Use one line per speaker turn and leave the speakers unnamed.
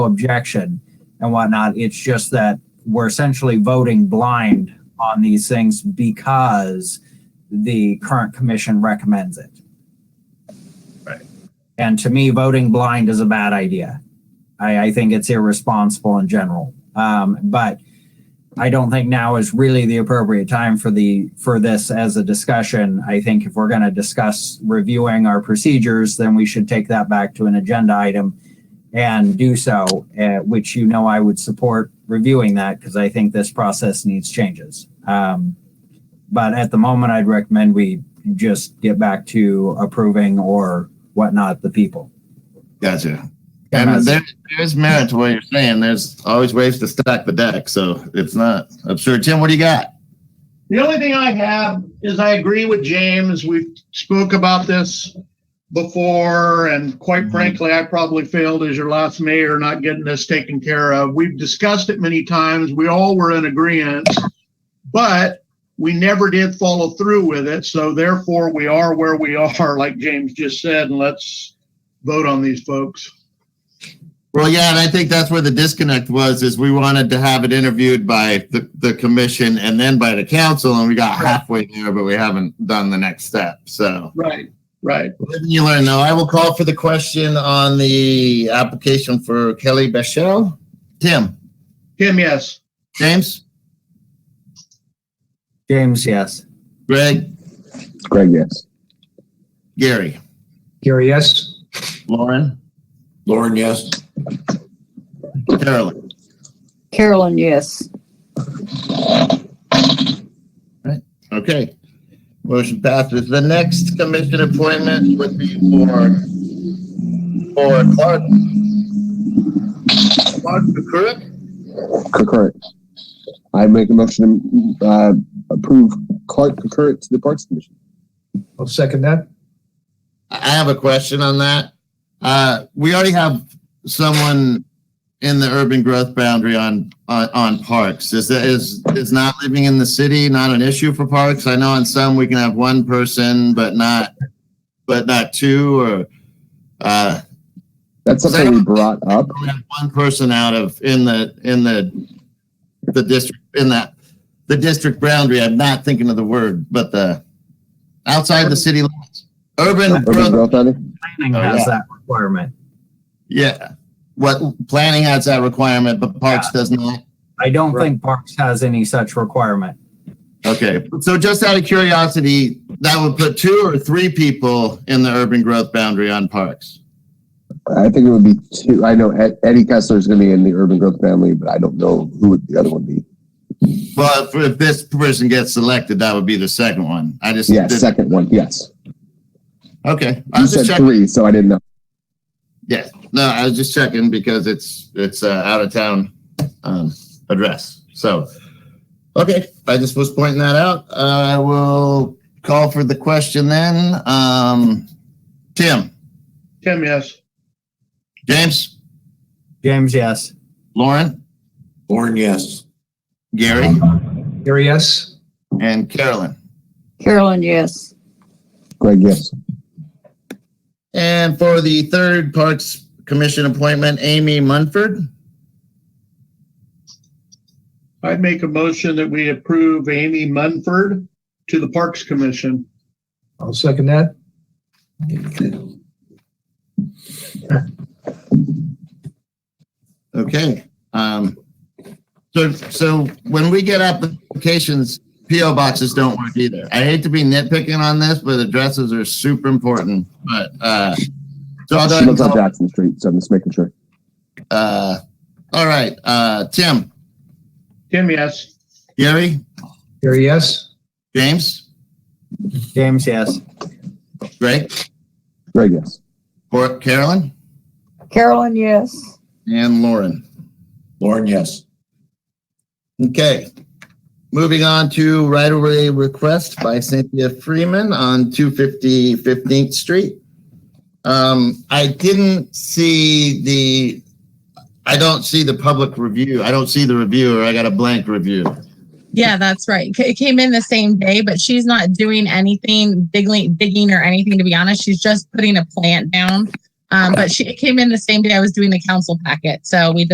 objection and whatnot. It's just that we're essentially voting blind on these things because the current commission recommends it.
Right.
And to me, voting blind is a bad idea. I, I think it's irresponsible in general. Um, but I don't think now is really the appropriate time for the for this as a discussion. I think if we're going to discuss reviewing our procedures, then we should take that back to an agenda item and do so, uh, which you know I would support reviewing that because I think this process needs changes. Um, but at the moment, I'd recommend we just get back to approving or whatnot the people.
Gotcha.
And
And
that's-
there, there's merit to what you're saying. There's always ways to stack the deck, so it's not absurd. Tim, what do you got?
The only thing I have is I agree with James. We've spoke about this before, and quite frankly, I probably failed as your last mayor not getting this taken care of. We've discussed it many times. We all were in agreement, but we never did follow through with it. So therefore, we are where we are, like James just said, and let's vote on these folks.
Well, yeah, and I think that's where the disconnect was, is we wanted to have it interviewed by the, the commission and then by the council, and we got halfway there, but we haven't done the next step, so.
Right. Right.
Live and You learn, though. I will call for the question on the application for Kelly Bechel. Tim,
Tim, yes.
James,
James, yes.
Greg,
Greg, yes.
Gary,
Gary, yes.
Lauren,
Lauren, yes.
Carolyn.
Carolyn, yes.
Okay. Motion passes. The next commission appointment would be for, for Clark. Clark McCurrick?
Concurrent. I make a motion to uh, approve Clark Concurrent to the Parks Commission.
I'll second that.
I I have a question on that. Uh, we already have someone in the urban growth boundary on, on, on parks. Is that, is, is not living in the city not an issue for parks? I know on some we can have one person, but not, but not two or, uh,
That's something we brought up.
only have one person out of in the in the the district in that the district boundary. I'm not thinking of the word, but the outside the city limits, urban
Urban
growth.
Growth Boundary.
Planning
Oh,
has
yeah.
that requirement.
Yeah, what planning has that requirement, but parks does not.
I don't think Parks has any such requirement.
Okay, so just out of curiosity, that would put two or three people in the urban growth boundary on parks.
I think it would be two. I know Ed- Eddie Kessler is going to be in the Urban Growth family, but I don't know who would the other one be.
Well, if, if this person gets selected, that would be the second one. I just
Yeah,
did-
second one. Yes.
okay. I
You
was just
said
checking.
three, so I didn't know.
Yeah, no, I was just checking because it's, it's uh, out of town um, address. So, okay, I just was pointing that out. I will call for the question then. Um, Tim,
Tim, yes.
James,
James, yes.
Lauren,
Lauren, yes.
Gary,
Gary, yes.
and Carolyn.
Carolyn, yes.
Greg, yes.
And for the third Parks Commission appointment, Amy Munford.
I'd make a motion that we approve Amy Munford to the Parks Commission.
I'll second that.
Okay. Um, so, so when we get applications, PO boxes don't work either. I hate to be nitpicking on this, but addresses are super important, but, uh, so I'll go
She
ahead and
lives on
call,
Jackson Street, so I'm just making sure.
uh, all right, uh, Tim,
Tim, yes.
Gary,
Gary, yes.
James,
James, yes.
Greg,
Greg, yes.
Cor- Carolyn,
Carolyn, yes.
and Lauren.
Lauren, yes.
Okay. Moving on to right-of-way request by Cynthia Freeman on 250 15th Street. Um, I didn't see the, I don't see the public review. I don't see the reviewer. I got a blank review.
Yeah, that's right. C- It came in the same day, but she's not doing anything digging, digging or anything, to be honest. She's just putting a plant down. Um, but she, it came in the same day I was doing the council packet. So we